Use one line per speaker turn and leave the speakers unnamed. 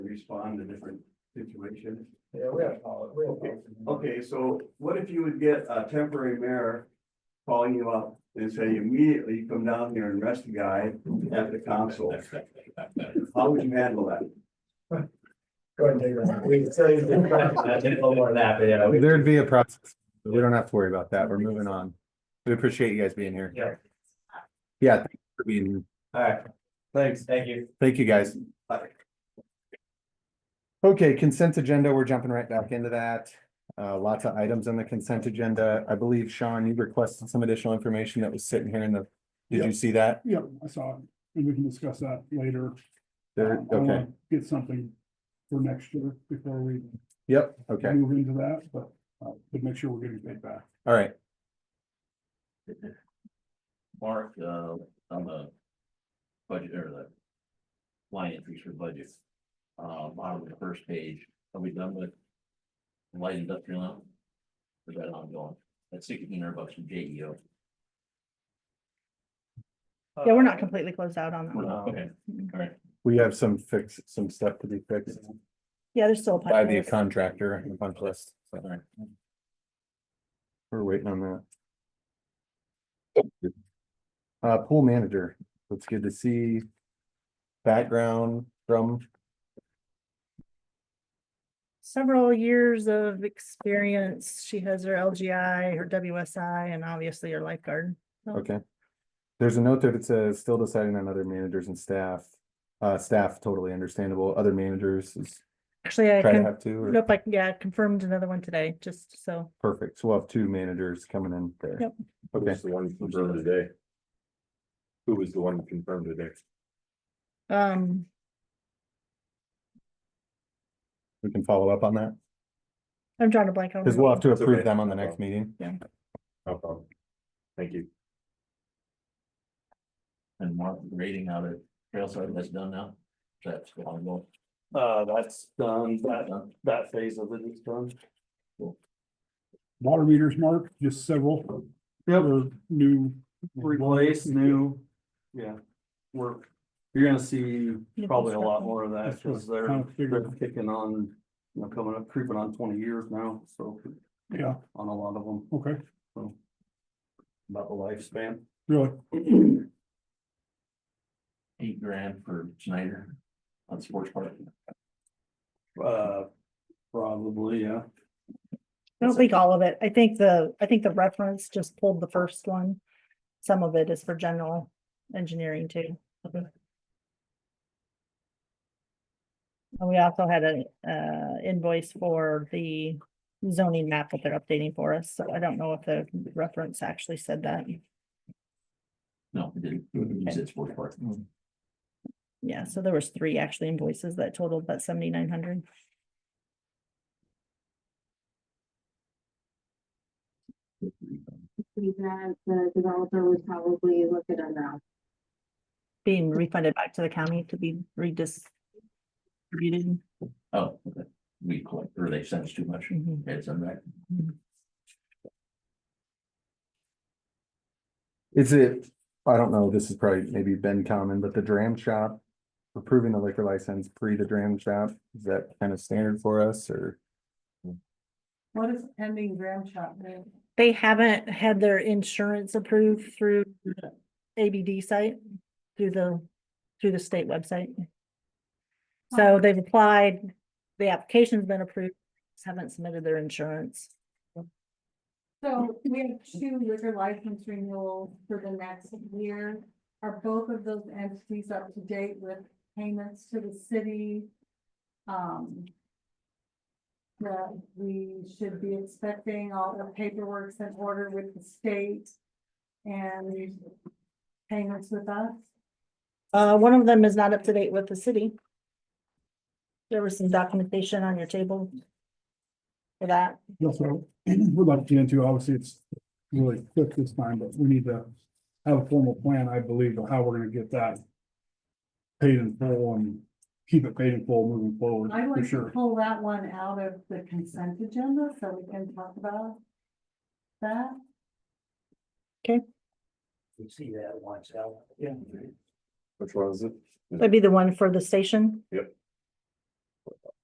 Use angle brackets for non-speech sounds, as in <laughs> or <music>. respond to different situations.
Yeah, we have policy. we have policy.
Okay, so what if you would get a temporary mayor calling you up and say immediately come down here and arrest the guy at the council? How would you handle that?
Go ahead and take it. We can
<laughs>
say
I did a little more of that, but yeah. we-
There'd be a process. We don't have to worry about that. We're moving on. We appreciate you guys being here.
Yeah.
Yeah, thank you for being here.
All right. Thanks. Thank you.
Thank you, guys.
Bye.
Okay, consent agenda, we're jumping right back into that. Uh, lots of items on the consent agenda. I believe, Sean, you requested some additional information that was sitting here in the, did you
Yep.
see that?
Yeah, I saw it, and we can discuss that later.
There,
Um,
Uh,
I
okay,
wanna Get something for next year before we
yep, okay,
move into that, but, uh, but make sure we're getting paid back.
all right.
Mark, uh, on the budget or the line entries for budget, uh, bottom of the first page, are we done with light industrial now? Is that ongoing? That's sixteen hundred bucks from J E O.
Yeah, we're not completely closed out on that one.
Okay, all right.
We have some fix, some stuff to be fixed
Yeah, there's still a.
by
punch
the
list.
contractor and the punch list. so
all right.
We're waiting on that. Uh, pool manager, that's good to see. Background from
Several years of experience. She has her LGI, her WSI, and obviously her lifeguard.
Okay. There's a note there that says, still deciding on other managers and staff. Uh, staff totally understandable, other managers is
Actually, I
try to
can,
have two, or-
nope, I, yeah, confirmed another one today, just so.
perfect, so we'll have two managers coming in there.
Yep.
Okay,
the one confirmed today? Who was the one confirmed today?
Um,
we can follow up on that,
I'm drawing a blank on.
because we'll have to
It's
approve
okay.
them on the next meeting.
No problem. Thank you.
And Mark, rating out of trail side, that's done now? That's ongoing.
Uh, that's done, that,
Done.
that phase of it is done.
Water meters, Mark, just several. Or New,
Replace new, yeah, work. You're gonna see probably a lot more of that,
That's what
because they're,
kind of
they're
figured,
kicking on, you know, coming up, creeping on twenty years now, so
yeah,
on a lot of them,
okay,
about the lifespan. <clears throat>
really,
Eight grand for Snyder on sports park.
Uh, probably, yeah.
I don't think all of it. I think the, I think the reference just pulled the first one. Some of it is for general engineering too. And we also had a, uh, invoice for the zoning map that they're updating for us, so I don't know if the reference actually said that.
No, it didn't. You said sports park.
Mm.
Yeah, so there was three actually invoices that totaled about seventy-nine hundred.
believe that the developer was probably looking at that.
Being refunded back to the county to be redistributed. Mm-hmm.
Oh, okay. We collect, or they send us too much.
Mhm.
It's on that.
Is it, I don't know, this is probably maybe been common, but the dram shop, approving the liquor license pre the dram shop, is that kind of standard for us, or?
What is pending gram shop mean?
They haven't had their insurance approved through the ABD site, through the, through the state website. So they've applied, the application's been approved, just haven't submitted their insurance.
So we have two liquor license renewals for the next year. Are both of those entities up to date with payments to the city? Um. That we should be expecting all the paperwork's in order with the state. And payments with us,
Uh, one of them is not up to date with the city. There was some documentation on your table for that.
that's what <clears throat> I would like to get into, obviously, it's really quick this time, but we need to have a formal plan, I believe, of how we're gonna get that paid in full and keep it paid in full moving forward,
I'd
for
like to
sure.
pull that one out of the consent agenda so we can talk about. That.
We see that once out. Yeah.
Which one is it?
That'd be the one for the station.
Yep.